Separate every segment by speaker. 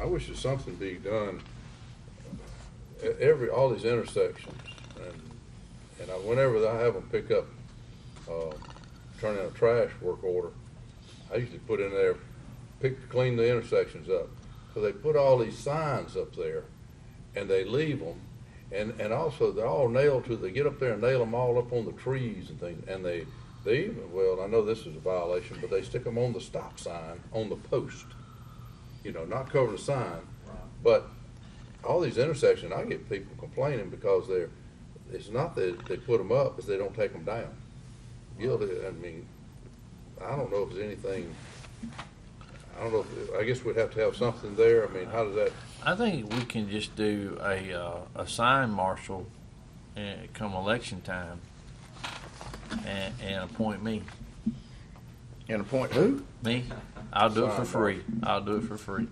Speaker 1: I wish there's something be done at every, all these intersections. And, and I, whenever I have them pick up, uh, turn in a trash work order, I usually put in there, pick, clean the intersections up. So they put all these signs up there and they leave them. And, and also they're all nailed to, they get up there and nail them all up on the trees and things. And they, they even, well, I know this is a violation, but they stick them on the stop sign, on the post. You know, not covering the sign, but all these intersections, I get people complaining because they're, it's not that they put them up, it's they don't take them down. Guilty, I mean, I don't know if there's anything, I don't know, if I guess we'd have to have something there, I mean, how does that,
Speaker 2: I think we can just do a, uh, a sign marshal and come election time and, and appoint me.
Speaker 3: And appoint who?
Speaker 2: Me? I'll do it
Speaker 1: Sign
Speaker 2: for free. I'll do it for free.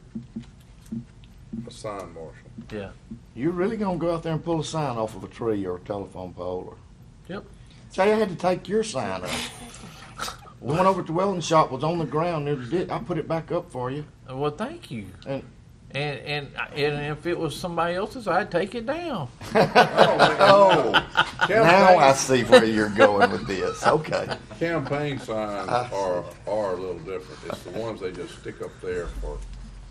Speaker 1: a sign marshal?
Speaker 2: Yeah.
Speaker 3: You're really gonna go out there and pull a sign off of a tree or a telephone pole or?
Speaker 2: Yep.
Speaker 3: Say I had to take your sign up. The one over at the welding shop was on the ground near the ditch. I put it back up for you.
Speaker 2: Uh, Well, thank you.
Speaker 3: And-
Speaker 2: and, and, and if it was somebody else's, I'd take it down.
Speaker 3: Oh, now I
Speaker 1: Campaign,
Speaker 3: see where you're going with this. Okay.
Speaker 1: campaign signs
Speaker 3: I see.
Speaker 1: are, are a little different, it's the ones they just stick up there for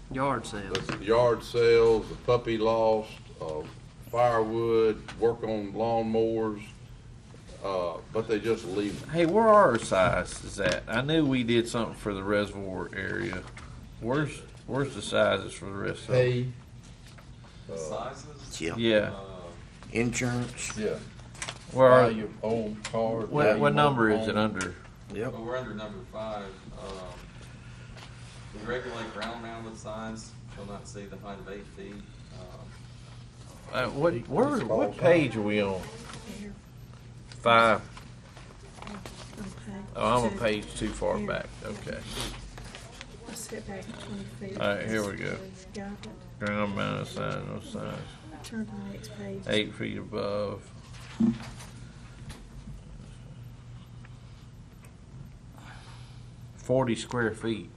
Speaker 4: Yard sale.
Speaker 1: the yard sales, the puppy lost, uh, firewood, work on lawnmowers, uh, but they just leave them.
Speaker 2: Hey, where are our sizes at? I knew we did something for the reservoir area. Where's where's the sizes for the rest of it?
Speaker 5: Sizes?
Speaker 3: Yeah.
Speaker 2: Yeah.
Speaker 3: Insurance.
Speaker 1: Yeah.
Speaker 2: Where are
Speaker 1: your old car.
Speaker 2: what, what number is it under?
Speaker 3: Yep.
Speaker 5: Well, we're under number five. Um, We regulate ground mounted signs, shall not see the height of eight feet. Um,
Speaker 2: Uh, what where, what page are we on? Five. Oh, I'm a page too far back. Okay.
Speaker 6: Sit back 20 feet.
Speaker 2: All right, here we go.
Speaker 6: Got
Speaker 2: Ground mounted uh, sign, no signs.
Speaker 6: it. Turn to the next page.
Speaker 2: Eight feet above. Forty square feet.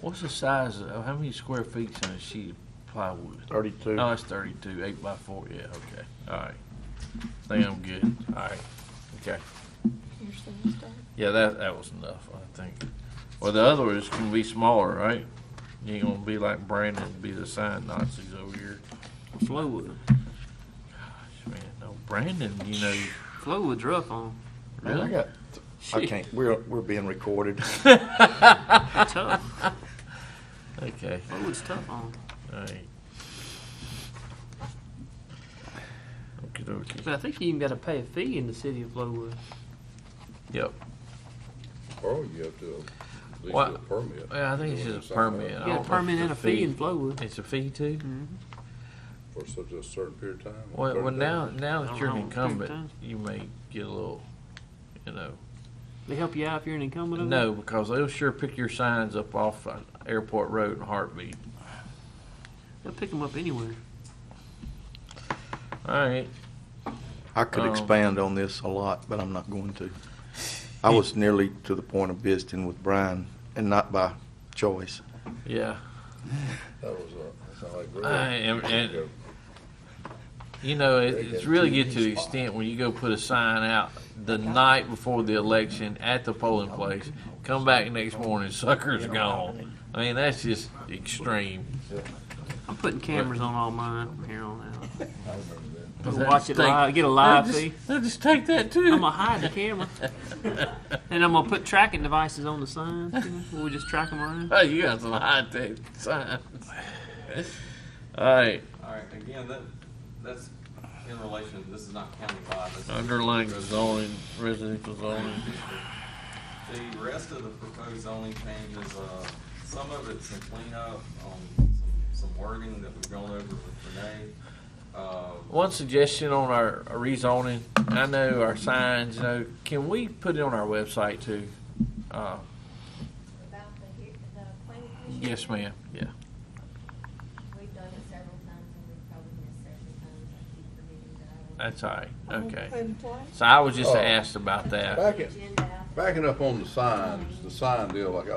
Speaker 2: What's the size of, how many square feet's on a sheet of plywood?
Speaker 3: Thirty-two.
Speaker 2: No, it's thirty-two, eight by four, yeah, okay, all right. Think I'm good, all right, okay.
Speaker 6: Here's the one start.
Speaker 2: Yeah, that, that was enough, I think. Well, the other is gonna be smaller, right? You ain't gonna be like Brandon, and be the sign Nazis over here.
Speaker 4: Flowwood.
Speaker 2: Man, no, Brandon, you know,
Speaker 4: Flowwood's rough on
Speaker 3: Man, I
Speaker 2: really?
Speaker 3: got. I can't. We're we're being recorded.
Speaker 4: them. Tough.
Speaker 2: Okay,
Speaker 4: Flowwood's tough on them.
Speaker 2: all right. Okey dokey.
Speaker 4: But I think you even got to pay a fee in the city of Flowwood.
Speaker 2: Yep,
Speaker 1: Or you have to, at least
Speaker 2: What?
Speaker 1: get a permit.
Speaker 2: well, I think it's just a permit. I
Speaker 4: You
Speaker 2: don't know
Speaker 4: got a
Speaker 2: if
Speaker 4: permit
Speaker 2: it's
Speaker 4: and a fee in Flowwood.
Speaker 2: It's a fee too?
Speaker 1: For such a certain period of time.
Speaker 2: Well,
Speaker 1: 30
Speaker 2: well,
Speaker 1: days.
Speaker 2: now, now
Speaker 4: I
Speaker 2: that
Speaker 4: don't
Speaker 2: you're an
Speaker 4: know, I think
Speaker 2: incumbent, you may get a little, you know,
Speaker 4: They help you out if you're an incumbent. over
Speaker 2: no, because they'll sure pick your signs up off uh, Airport Road in a heartbeat.
Speaker 4: there? They'll pick them up anywhere.
Speaker 2: All right,
Speaker 3: I could
Speaker 2: Um,
Speaker 3: expand on this a lot, but I'm not going to. I was nearly to the point of visiting with Brian, and not by choice.
Speaker 2: yeah,
Speaker 1: That was uh, a, that sounded like. real.
Speaker 2: I am- and- you know, it, it's really get to the extent when you go put a sign out the night before the election at the polling place, come back next morning, sucker's gone. I mean, that's just extreme.
Speaker 4: I'm putting cameras on all mine from here on out. Just
Speaker 2: that
Speaker 4: watch it
Speaker 2: stink?
Speaker 4: live. Get a live
Speaker 2: They'll
Speaker 4: fee.
Speaker 2: just- they'll just take that
Speaker 4: I'm
Speaker 2: too.
Speaker 4: gonna hide the camera, and I'm gonna put tracking devices on the signs. You know? We'll just track them around.
Speaker 2: Hey, you got some high tech signs. All right,
Speaker 5: All right, again, that, that's in relation, this is not countywide. this is-
Speaker 2: underlying zoning, residential zoning.
Speaker 5: The rest of the proposed zoning changes, uh, some of it's some cleanup, um, some- some wording that we've gone over with Renee. Uh,
Speaker 2: One suggestion on our rezoning, I know our signs, you know, can we put it on our website too? Uh,
Speaker 7: About the, he- the planning commission?
Speaker 2: yes, ma'am, yeah.
Speaker 7: We've done it several times and we've probably missed several times. I keep forgetting that I don't.
Speaker 2: That's all right, okay.
Speaker 6: And what?
Speaker 2: Oh. So I was just asked about that.
Speaker 1: Back it,
Speaker 7: Agenda out.
Speaker 1: backing up on the signs, the sign deal, like I